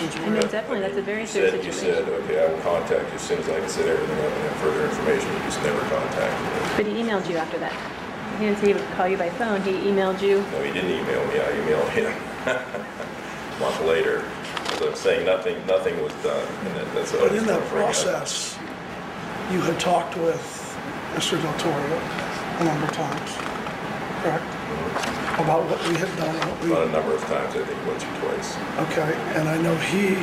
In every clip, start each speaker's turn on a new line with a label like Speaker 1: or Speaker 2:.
Speaker 1: since you
Speaker 2: I
Speaker 1: were
Speaker 2: know,
Speaker 1: at-
Speaker 2: definitely, that's a very
Speaker 1: you
Speaker 2: serious
Speaker 1: said- You said,
Speaker 2: situation.
Speaker 1: okay, I will contact you as soon as I can set everything up and have further information, you just never contacted me.
Speaker 2: But he emailed you after that. He didn't say he would call you by phone, he emailed you.
Speaker 1: No, he didn't email me, I emailed him a month later. So I'm saying nothing, nothing was done, and that- that's. what I
Speaker 3: But
Speaker 1: was
Speaker 3: in
Speaker 1: gonna
Speaker 3: that
Speaker 1: bring up.
Speaker 3: process, you had talked with Mr. Del Toro a number of times, correct? About what we had done, what we,
Speaker 1: About a number of times, I think once or twice.
Speaker 3: okay, and I know he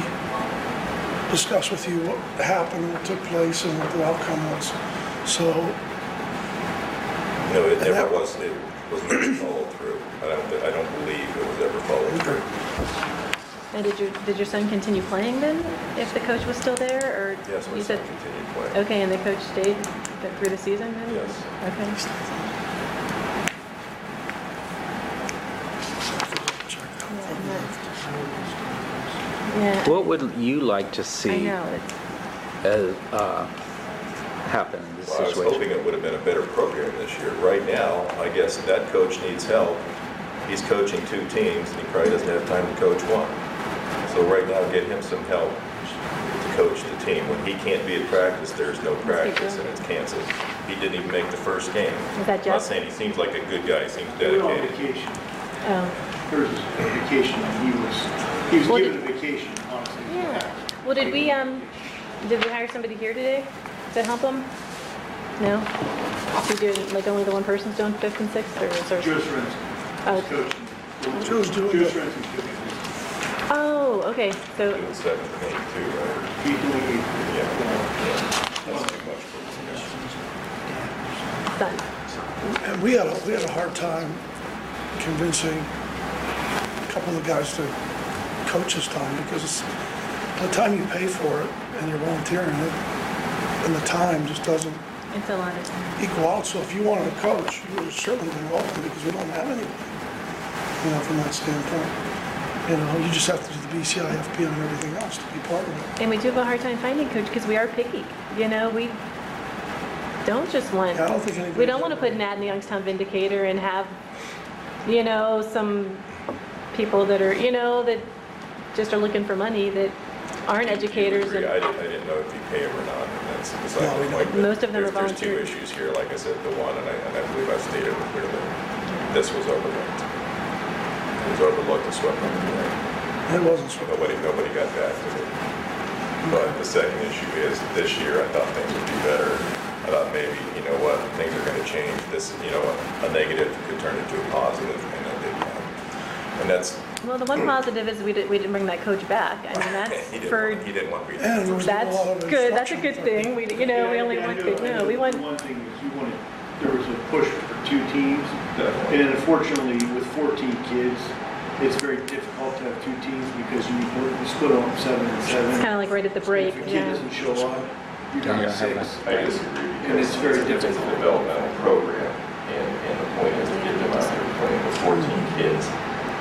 Speaker 3: discussed with you what happened, what took place, and what the outcome was. So,
Speaker 1: No, it
Speaker 3: And
Speaker 1: never
Speaker 3: that-
Speaker 1: was, it was never followed through. I don't, thi- I don't believe it was ever followed through.
Speaker 2: And did your, did your son continue playing then, if the coach was still there, or?
Speaker 1: Yes, my
Speaker 2: you
Speaker 1: son
Speaker 2: said-
Speaker 1: continued playing.
Speaker 2: Okay, and the coach stayed th- through the season then?
Speaker 1: Yes.
Speaker 2: Okay. Yeah,
Speaker 4: What would you like to
Speaker 2: I
Speaker 4: see
Speaker 2: know, it's,
Speaker 4: as, uh, happen in this
Speaker 1: Well, I was hoping
Speaker 4: situation?
Speaker 1: it would have been a better program this year. Right now, I guess that coach needs help. He's coaching two teams, and he probably doesn't have time to coach one. So right now, get him some help to coach the team. When he can't be at practice, there's no practice, and it's canceled. He didn't even make the first
Speaker 2: Is
Speaker 1: game.
Speaker 2: that
Speaker 1: I'm not
Speaker 2: Jeff?
Speaker 1: saying he seems like a good guy, he seems
Speaker 5: We were on
Speaker 1: dedicated.
Speaker 5: vacation.
Speaker 2: oh,
Speaker 5: There was a vacation, and he was, he was
Speaker 2: Well,
Speaker 5: given a
Speaker 2: did-
Speaker 5: vacation, honestly.
Speaker 2: yeah. Well, did we, um, did we hire somebody here today to help him? No? We did, like, only the one person's doing fifth and sixth, or is there?
Speaker 5: Joe Sorensen
Speaker 2: Oh.
Speaker 5: was coaching.
Speaker 3: Joe's doing
Speaker 5: Joe
Speaker 3: it.
Speaker 5: Sorensen's doing it.
Speaker 2: Oh, okay, so,
Speaker 1: Doing seventh and eighth too, right?
Speaker 5: He's doing it.
Speaker 1: Yeah. That's too much for us.
Speaker 2: done.
Speaker 3: and we had, a we had a hard time convincing a couple of the guys to coach this time because it's, the time you pay for it and you're volunteering it, and the time just doesn't
Speaker 2: It's a lot of time.
Speaker 3: equal out. So if you wanted to coach, you would certainly be welcome because we don't have anybody, you know, from that standpoint. You know, you just have to do the BCI, FPM, and everything else to be part of it.
Speaker 2: And we do have a hard time finding coach because we are picky. You know, we don't just want,
Speaker 3: Yeah, I don't think anybody.
Speaker 2: we don't want to put an ad in the Youngstown Vindicator and have, you know, some people that are, you know, that just are looking for money that aren't educators
Speaker 1: I
Speaker 2: and,
Speaker 1: didn't, I didn't know if you pay them or not, and that's beside
Speaker 3: No, we
Speaker 1: the point.
Speaker 2: don't. Most of them are
Speaker 1: There's-
Speaker 2: volunteer.
Speaker 1: There's two issues here, like I said, the one, and I, and I believe I stated it clearly, this was overlooked. It was overlooked and swept under the rug.
Speaker 3: It wasn't swept.
Speaker 1: Nobody, nobody got back to it. But the second issue is, this year, I thought things would be better. I thought maybe, you know what, things are gonna change, this, you know, a negative could turn into a positive, and it didn't happen. And that's,
Speaker 2: well, the one positive is we didn't, we didn't bring that coach back. I mean, that's
Speaker 1: he didn't,
Speaker 2: for,
Speaker 1: want- he didn't want me to.
Speaker 3: And there was a lot
Speaker 2: that's
Speaker 3: of
Speaker 2: good, that's a
Speaker 3: instruction.
Speaker 2: good thing. We, you know, we only
Speaker 5: Yeah, I
Speaker 2: want
Speaker 5: know,
Speaker 2: good,
Speaker 5: I know.
Speaker 2: no, we
Speaker 5: The
Speaker 2: want,
Speaker 5: One thing is you wanted, there was a push for two teams, and unfortunately, with 14 kids, it's very difficult to have two teams because you you split them seven and seven.
Speaker 2: it's kind of like right at the break,
Speaker 5: If a kid
Speaker 2: yeah.
Speaker 5: doesn't show up, you're down
Speaker 4: Yeah,
Speaker 5: to
Speaker 4: I have
Speaker 5: six.
Speaker 1: I disagree
Speaker 5: And
Speaker 1: because
Speaker 5: it's very
Speaker 1: it's a
Speaker 5: difficult.
Speaker 1: developmental program, and, and the point is to get them out there playing with fourteen kids.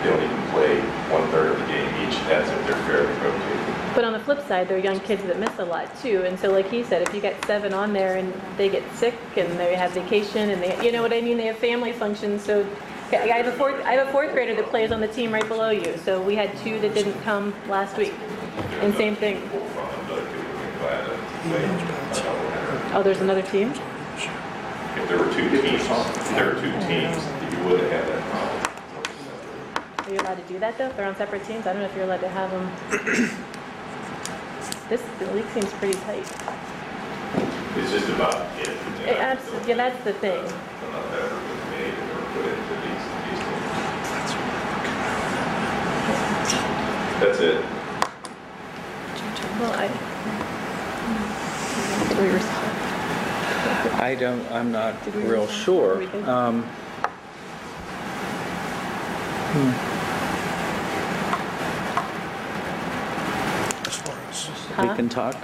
Speaker 1: They don't even play one-third of the game each, that's if they're fairly rotated.
Speaker 2: But on the flip side, there are young kids that miss a lot too. And so, like he said, if you get seven on there and they get sick and they have vacation and they, you know what I mean, they have family functions. So, I I have a fourth, I have a fourth grader that plays on the team right below you. So we had two that didn't come last week, and same thing. Oh, there's another team.
Speaker 1: If there were two teams, if there were two teams, you wouldn't have that problem.
Speaker 2: Are you allowed to do that though? If they're on separate teams, I don't know if you're allowed to have them. This the league seems pretty tight.
Speaker 1: It's just about if.
Speaker 2: It, abs- yeah, that's the thing.
Speaker 1: Not that was made or put into these, these things. That's it.
Speaker 2: Well, I. Did we respond?
Speaker 4: I don't, I'm not
Speaker 2: Did we
Speaker 4: real
Speaker 2: resolve?
Speaker 4: sure.
Speaker 2: We did.
Speaker 4: Um,
Speaker 3: As far as,
Speaker 4: We
Speaker 2: Huh?
Speaker 4: can talk.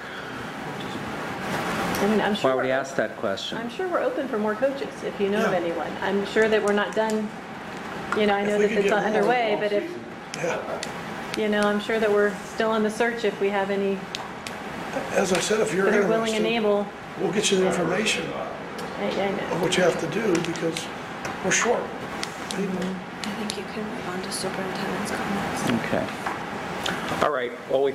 Speaker 2: I mean, I'm sure.
Speaker 4: Why would he
Speaker 2: we're-
Speaker 4: ask that question?
Speaker 2: I'm sure we're open for more coaches, if you know of
Speaker 3: Yeah.
Speaker 2: anyone. I'm sure that we're not done, you know, I
Speaker 3: If
Speaker 2: know
Speaker 3: we
Speaker 2: that
Speaker 3: could
Speaker 2: it's
Speaker 3: get more
Speaker 2: underway, but if,
Speaker 3: yeah,
Speaker 2: you know, I'm sure that we're still in the search if we have any
Speaker 3: as I said, if you're
Speaker 2: that are willing and
Speaker 3: interested,
Speaker 2: able.
Speaker 3: we'll get you the information
Speaker 2: I- I know.
Speaker 3: of what you have to do because we're short.
Speaker 6: I think you can move on to superintendent's comments.
Speaker 4: Okay. All right, well, we